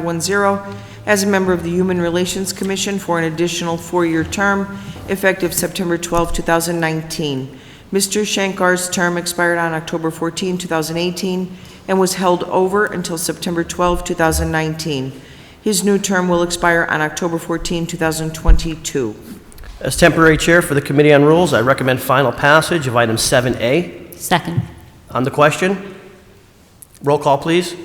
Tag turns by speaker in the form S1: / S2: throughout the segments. S1: 1510 as a member of the Human Relations Commission for an additional four-year term effective September 12, 2019. Mr. Shankar's term expired on October 14, 2018, and was held over until September 12, 2019. His new term will expire on October 14, 2022.
S2: As temporary chair for the Committee on Rules, I recommend final passage of item 7A.
S3: Second.
S2: On the question, roll call, please.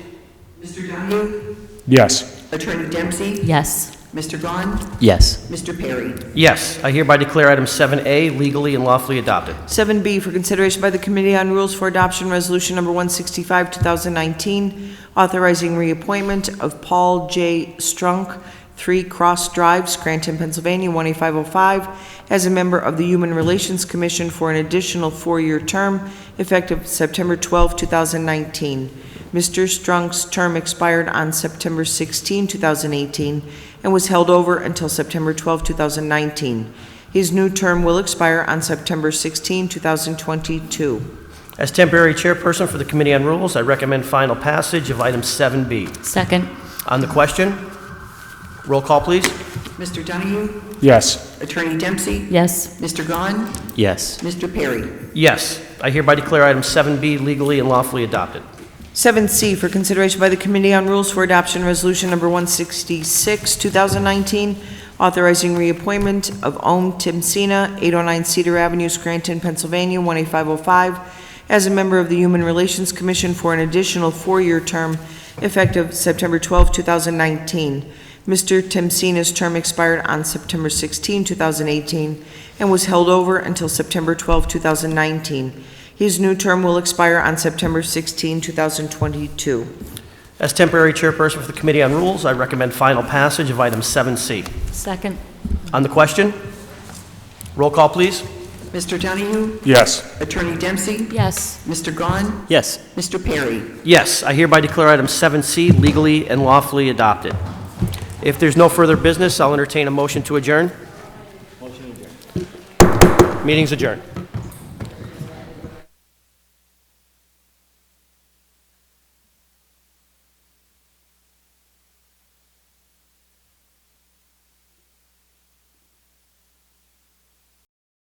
S4: Mr. Donahue?
S5: Yes.
S4: Attorney Dempsey?
S3: Yes.
S4: Mr. Gahn?
S6: yes,
S4: Mr. Perry?
S2: Yes, I hereby declare item 7A legally and lawfully adopted.
S1: 7B for consideration by the Committee on Rules for Adoption Resolution Number 165, 2019, authorizing reappointment of Paul J. Strunk, 3 Cross Drive, Scranton, Pennsylvania, 18505, as a member of the Human Relations Commission for an additional four-year term effective September 12, 2019. Mr. Strunk's term expired on September 16, 2018, and was held over until September 12, 2019. His new term will expire on September 16, 2022.
S2: As temporary chairperson for the Committee on Rules, I recommend final passage of item 7B.
S3: Second.
S2: On the question, roll call, please.
S4: Mr. Donahue?
S5: Yes.
S4: Attorney Dempsey?
S3: Yes.
S4: Mr. Gahn?
S6: yes,
S4: Mr. Perry?
S2: Yes, I hereby declare item 7B legally and lawfully adopted.
S1: 7C for consideration by the Committee on Rules for Adoption Resolution Number 166, 2019, authorizing reappointment of Om Timsina, 809 Cedar Avenue, Scranton, Pennsylvania, 18505, as a member of the Human Relations Commission for an additional four-year term effective September 12, 2019. Mr. Timsina's term expired on September 16, 2018, and was held over until September 12, 2019. His new term will expire on September 16, 2022.
S2: As temporary chairperson for the Committee on Rules, I recommend final passage of item 7C.
S3: Second.
S2: On the question, roll call, please.
S4: Mr. Donahue?
S5: Yes.
S4: Attorney Dempsey?
S3: Yes.
S4: Mr. Gahn?
S6: yes,
S4: Mr. Perry?
S2: Yes, I hereby declare item 7C legally and lawfully adopted. If there's no further business, I'll entertain a motion to adjourn. Motion adjourned. Meeting's adjourned.